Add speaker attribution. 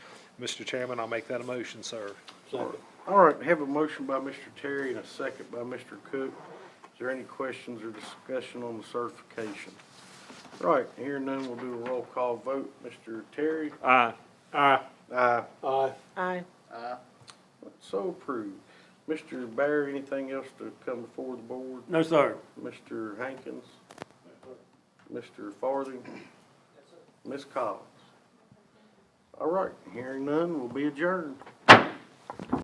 Speaker 1: Mr. Chairman, I'll make that a motion, sir.
Speaker 2: All right, have a motion by Mr. Terry and a second by Mr. Cook. Is there any questions or discussion on the certification? All Right, hearing none, we'll do a roll call vote. Mr. Terry?
Speaker 1: Aye.
Speaker 2: Aye. Aye.
Speaker 3: Aye.
Speaker 4: Aye.
Speaker 2: So approved. Mr. Bear, anything else to come before the board?
Speaker 3: No, sir.
Speaker 2: Mr. Hankins? Mr. Farthing? Ms. Collins? All right, hearing none, we'll be adjourned.